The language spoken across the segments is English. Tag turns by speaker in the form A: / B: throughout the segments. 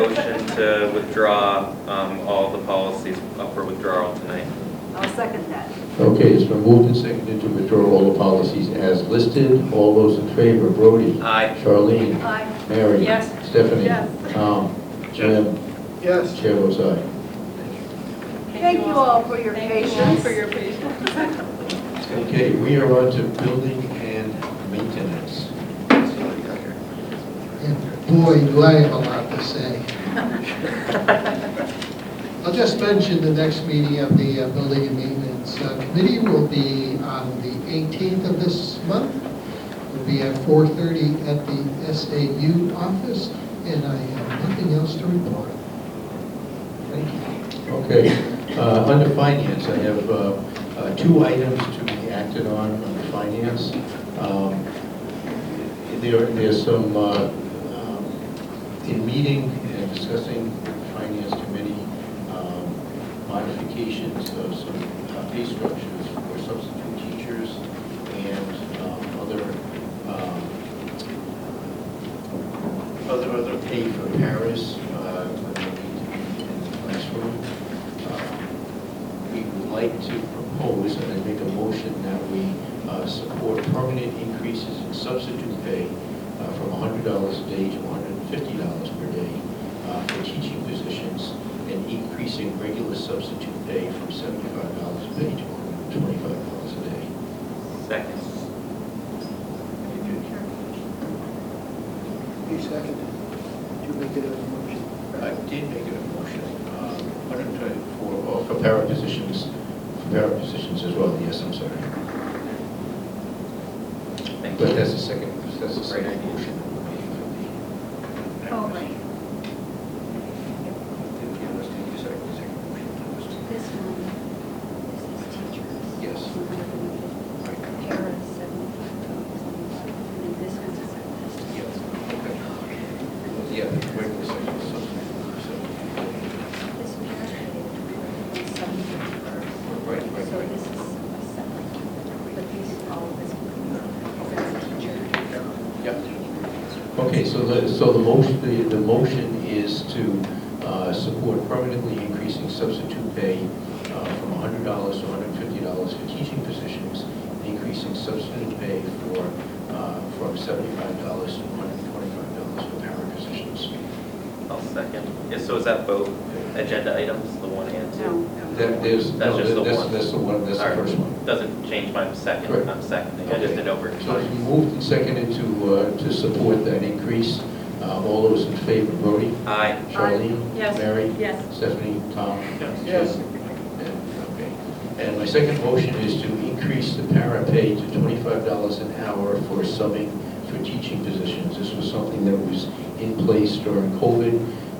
A: motion to withdraw um, all the policies up for withdrawal tonight.
B: I'll second that.
C: Okay, it's been moved and seconded to withdraw all the policies as listed. All those in favor, Brody?
A: Aye.
C: Charlene?
B: Aye.
C: Mary?
D: Yes.
C: Stephanie?
D: Yes.
C: Tom? Jim?
E: Yes.
C: Chair votes aye.
B: Thank you all for your
D: Thank you all
B: patience.
D: for your patience.
C: Okay, we are on to building and maintenance.
E: And boy, do I have a lot to say. I'll just mention the next meeting of the uh, Building and Maintenance uh, Committee will be on the 18th of this month. It'll be at 4:30 at the SAU office, and I have nothing else to report. Thank you.
C: Okay, uh, under finance, I have uh, uh, two items to be acted on under finance. Um, There, there's some, uh, um, in meeting and discussing finance committee um, modifications of some uh, pay structures for substitute teachers and um, other um, other, other pay for Paris, uh, when they need to be in the classroom. Uh, We would like to propose, and I make a motion that we uh, support permanent increases in substitute pay uh, from hundred dollars a day to hundred and fifty dollars per day uh, for teaching positions, and increasing regular substitute pay from seventy-five dollars a day to one hundred and twenty-five dollars a day.
A: Second.
E: You second it. You make it a motion.
C: I did make a motion, um, 124, or for para positions, for para positions as well, yes, I'm sorry.
A: Thank
C: But
A: you.
C: that's the second, that's the second motion. that we're making for the-
B: Oh, right.
C: Did you understand the second- second motion to this?
B: This one, this is teachers.
C: Yes. Right.
B: Kara, seventy-five dollars. And then this one's a second.
C: Yes, okay. Yeah, wait a second, so, so,
B: This one, seventy-five.
C: right, right,
B: So
C: right.
B: this is a separate, but these, all of this one, that's teacher.
C: Okay, so the, so the motion, the, the motion is to uh, support permanently increasing substitute pay uh, from $100 to $150 for teaching positions, and increasing substitute pay for, uh, from $75 to $125 for para positions.
A: I'll second. Yeah, so is that both agenda items, the one and
B: No,
A: two?
B: no.
C: That, there's,
A: That's
C: no,
A: just the
C: that's,
A: one.
C: that's the one, that's the
A: All right.
C: first one.
A: Doesn't change my second,
C: Right.
A: I'm seconding, I just did over.
C: So it's been moved and seconded to, uh, to support that increase. Uh, All those in favor, Brody?
A: Aye.
C: Charlene?
D: Yes.
C: Mary?
D: Yes.
C: Stephanie? Tom?
E: Yes.
C: Okay. And my second motion is to increase the para pay to twenty-five dollars an hour for subbing for teaching positions. This was something that was in place during COVID.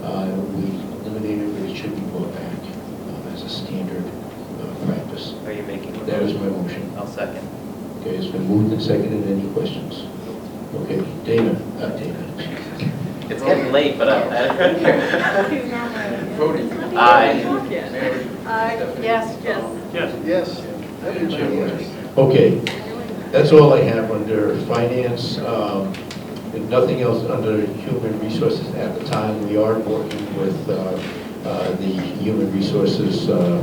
C: Uh, We eliminated, but it should be brought back um, as a standard uh, practice.
A: Are you making? a
C: That is
A: motion?
C: my motion.
A: I'll second.
C: Okay, it's been moved and seconded. Any questions? Okay, Dana, uh, Dana.
A: It's getting late, but I, I don't care.
C: Brody.
A: Aye.
B: Aye, yes, yes.
E: Yes.
C: Okay, that's all I have under finance, um, and nothing else under human resources at the time. We are working with uh, uh, the Human Resources uh,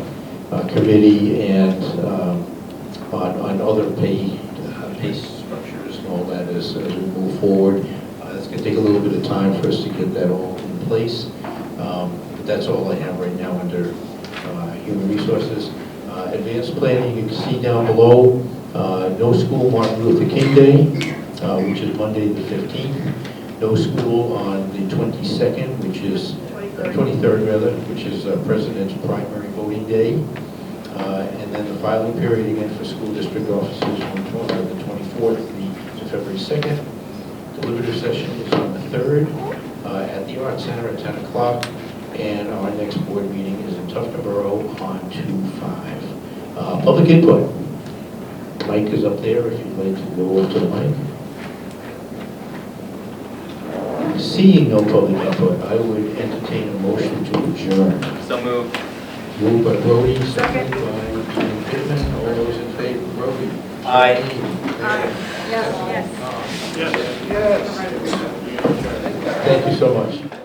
C: uh, Committee and um, on on other pay, uh, pay structures and all that as as we move forward. Uh, It's going to take a little bit of time for us to get that all in place. Um, but That's all I have right now under uh, human resources. Uh, Advanced planning, you can see down below, uh, no school Martin Luther King Day, uh, which is Monday the 15th. No school on the 22nd, which is, uh, 23rd rather, which is uh, President's primary voting day. Uh, And then the filing period again for school district offices on tw- uh, the 24th the- to February 2nd. Deliberative session is on the 3rd uh, at the Art Center at 10 o'clock, and our next board meeting is in Tuftonboro on 2/5. Uh, Public input. Mike is up there if you'd like to go over to the mic. Seeing no public input, I would entertain a motion to adjourn.
A: So move.
C: Moved by Brody, seconded by Jim Pittman. All those in favor, Brody?
A: Aye.
B: Yes, yes.
E: Yes.
C: Thank you so much.